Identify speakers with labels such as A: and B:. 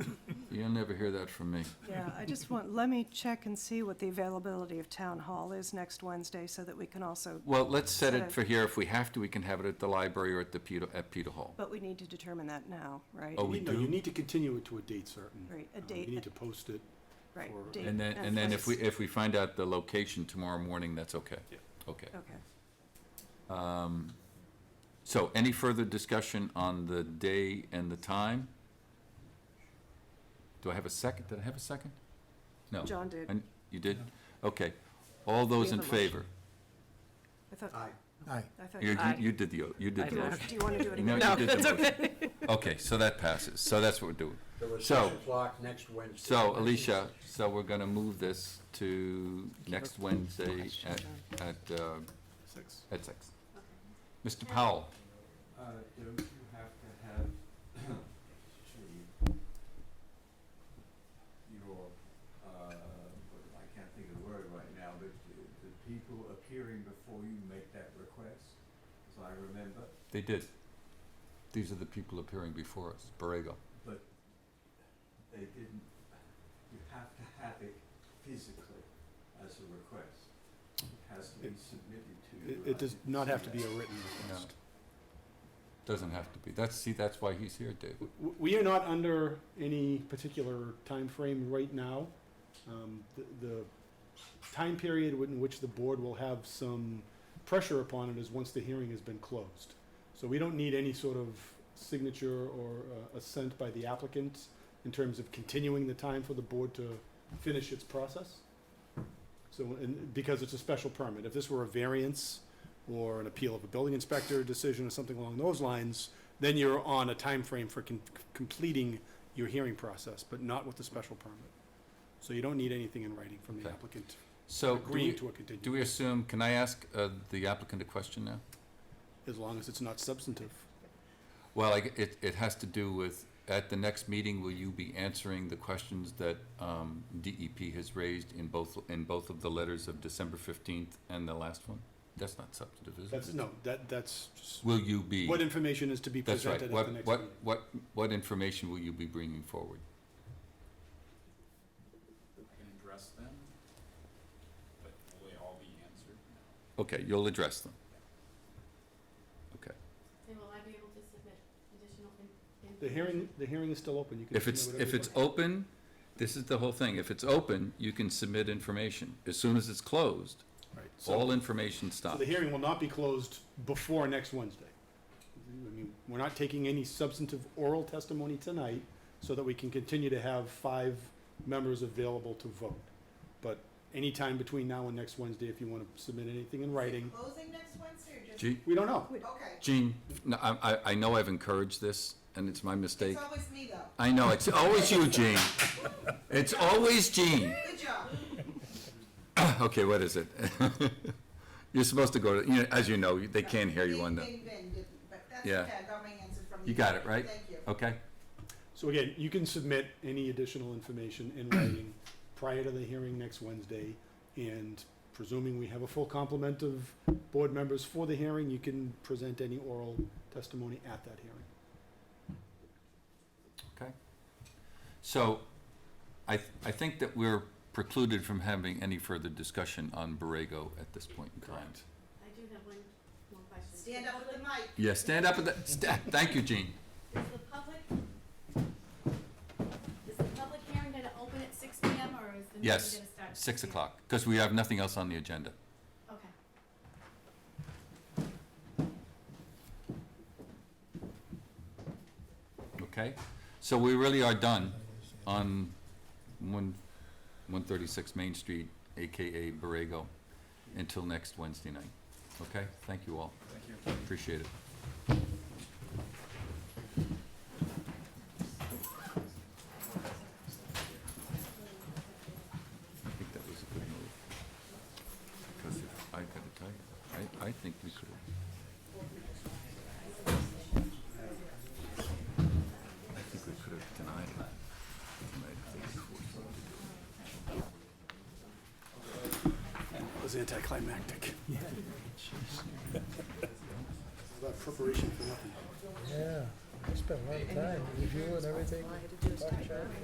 A: You'll never hear that from me.
B: Yeah, I just want, let me check and see what the availability of town hall is next Wednesday so that we can also,
A: Well, let's set
B: Set
A: it
B: it.
A: for here. If we have to, we can have it at the library or at the Peter, at Peter Hall.
B: but we need to determine that now, right?
A: Oh, we
C: No, You
A: do?
C: need to continue it to a date certain.
B: Right, a
C: Uh,
B: date-
C: You need to post it.
B: Right,
C: for-
B: date
A: And then, and then if we,
B: place.
A: if we find out the location tomorrow morning, that's okay.
C: Yeah.
A: Okay.
B: Okay,
A: Um, So any further discussion on the day and the time? Do I have a second? Did I have a second? No.
B: John did.
A: And you did? Okay. All those in
B: have a motion.
A: favor?
B: I thought,
C: Aye.
D: Aye.
B: I thought.
A: You, you-
E: Aye.
A: you did the, o- you did
E: I
A: the
E: did.
A: motion.
B: Do you want to do it
A: No,
B: again?
A: you
E: No,
A: did the
E: it's
A: motion. Okay, so that passes. So that's what we're doing.
F: The
A: So-
F: recession clock next Wednesday.
A: So Alicia, so we're gonna move this to next Wednesday at, at, uh,
C: Six.
A: at six. Mr. Powell,
G: Uh, don't you have to have to your, uh, I can't think of the word right now, but the, the people appearing before you make that request, as I remember,
A: they did. These are the people appearing before us, Borrego.
G: but they didn't, you have to have it physically as a request. It has to be
C: It-
G: submitted to you.
C: It, it does not have to be a written
A: No.
C: request.
A: Doesn't have to be. That's, see, that's why he's here, David.
C: W- We are not under any particular time frame right now. Um, The the time period in which the board will have some pressure upon it is once the hearing has been closed. So we don't need any sort of signature or uh, assent by the applicant in terms of continuing the time for the board to finish its process. So, and because it's a special permit, if this were a variance or an appeal of a building inspector decision or something along those lines, then you're on a time frame for con- completing your hearing process, but not with the special permit. So you don't need anything in writing from the
A: Okay.
C: applicant
A: So do
C: agreeing
A: we,
C: to a continuance.
A: do we assume, can I ask, uh, the applicant a question now?
C: As long as it's not substantive.
A: Well, I g it, it has to do with, at the next meeting, will you be answering the questions that um, DEP has raised in both, in both of the letters of December 15th and the last one? That's not substantive, is it?
C: That's, no, that, that's just
A: Will you be,
C: what information is to be
A: that's right,
C: presented at the
A: what,
C: next
A: what,
C: meeting.
A: what, what information will you be bringing forward?
G: I can address them, but will they all be answered?
A: Okay, you'll address them. Okay.
H: And will I be able to submit additional in- information?
C: The hearing, the hearing is still open. You can
A: If it's,
C: submit
A: if
C: whatever
A: it's
C: you want.
A: open, this is the whole thing, if it's open, you can submit information. As soon as it's closed,
C: Right, so-
A: all information
C: So
A: stops.
C: the hearing will not be closed before next Wednesday. I mean, we're not taking any substantive oral testimony tonight so that we can continue to have five members available to vote. But anytime between now and next Wednesday, if you want to submit anything in writing,
I: Closing next Wednesday or just?
A: Gee.
C: we don't know.
I: Okay.
A: Gene, no, I, I, I know I've encouraged this, and it's my mistake.
I: It's always me though.
A: I know, it's always you, Gene. It's always Gene.
I: Good job.
A: Okay, what is it? You're supposed to go to, you know, as you know, they can't hear you on the,
I: Bing, bing, bing, didn't, But that's
A: Yeah.
I: okay, I got my answer from you.
A: you got it, right?
I: Thank you.
A: Okay,
C: So again, you can submit any additional information in writing prior to the hearing next Wednesday. And presuming we have a full complement of board members for the hearing, you can present any oral testimony at that hearing.
A: so I, th- I think that we're precluded from having any further discussion on Borrego at this point in time.
C: Correct.
H: I do have one more question.
I: Stand up with the mic.
A: Yeah, stand up at the, sta- thank you, Gene.
H: Is the public, is the public hearing gonna open at six P M. or is the meeting gonna
A: Yes,
H: start? at
A: Six
H: 6 p.m.?
A: o'clock, because we have nothing else on the agenda.
H: Okay.
A: Okay, so we really are done on one, one thirty-six Main Street, AKA Borrego, until next Wednesday night. Okay, thank you all. Thank you. Appreciate it. I think that was a good move. Because if, I gotta tell you, I, I think we could have I think we could have denied it. Denied it.
C: It was anticlimactic. About preparation for nothing.
D: Yeah, I spent a lot of time, review and everything.
B: All I had to do is type it.